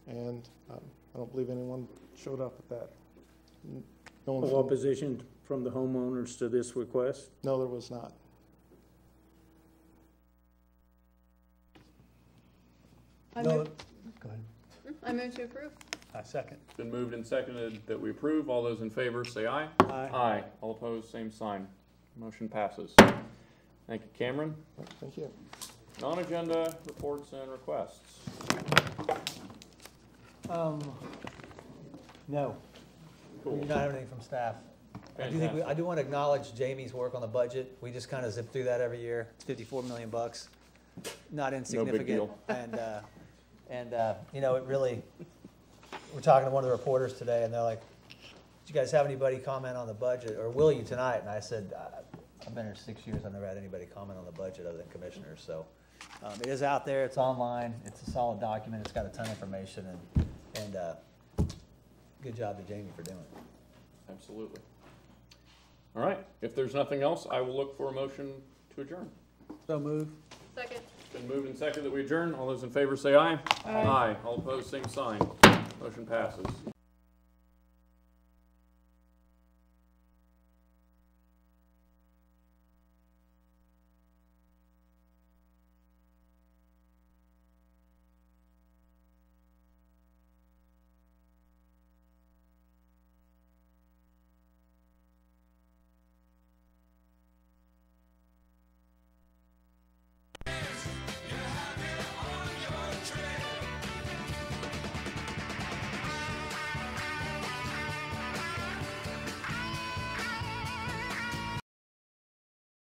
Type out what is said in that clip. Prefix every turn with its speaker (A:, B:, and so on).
A: and um, I don't believe anyone showed up at that. N- No
B: No
A: one,
B: opposition from the homeowners to this request?
A: no, there was not.
C: I
D: No,
C: move,
D: go ahead.
C: I move to approve.
D: I second.
E: Been moved and seconded that we approve. All those in favor say aye.
D: Aye.
E: Aye. All opposed, same sign. Motion passes. Thank you, Cameron.
A: Thank you.
E: Non-agenda reports and requests.
D: Um, no, we do
E: Cool.
D: not have anything from staff. I do think, we- I
E: Fantastic.
D: do want to acknowledge Jamie's work on the budget. We just kind of zip through that every year, fifty-four million bucks. Not insignificant.
E: deal.
D: And, uh, and, uh, you know, it really, we're talking to one of the reporters today and they're like, do you guys have anybody comment on the budget or will you tonight? And I said, "I- I've been here six years, I've never had anybody comment on the budget other than commissioners, so. Um, it is out there, it's online, it's a solid document, it's got a ton of information and, and, uh, good job to Jamie for doing it.
E: Absolutely. All right. If there's nothing else, I will look for a motion to adjourn.
D: So move.
C: Second.
E: Been moved and seconded that we adjourn. All those in favor say aye. Aye. All opposed, same sign. Motion passes.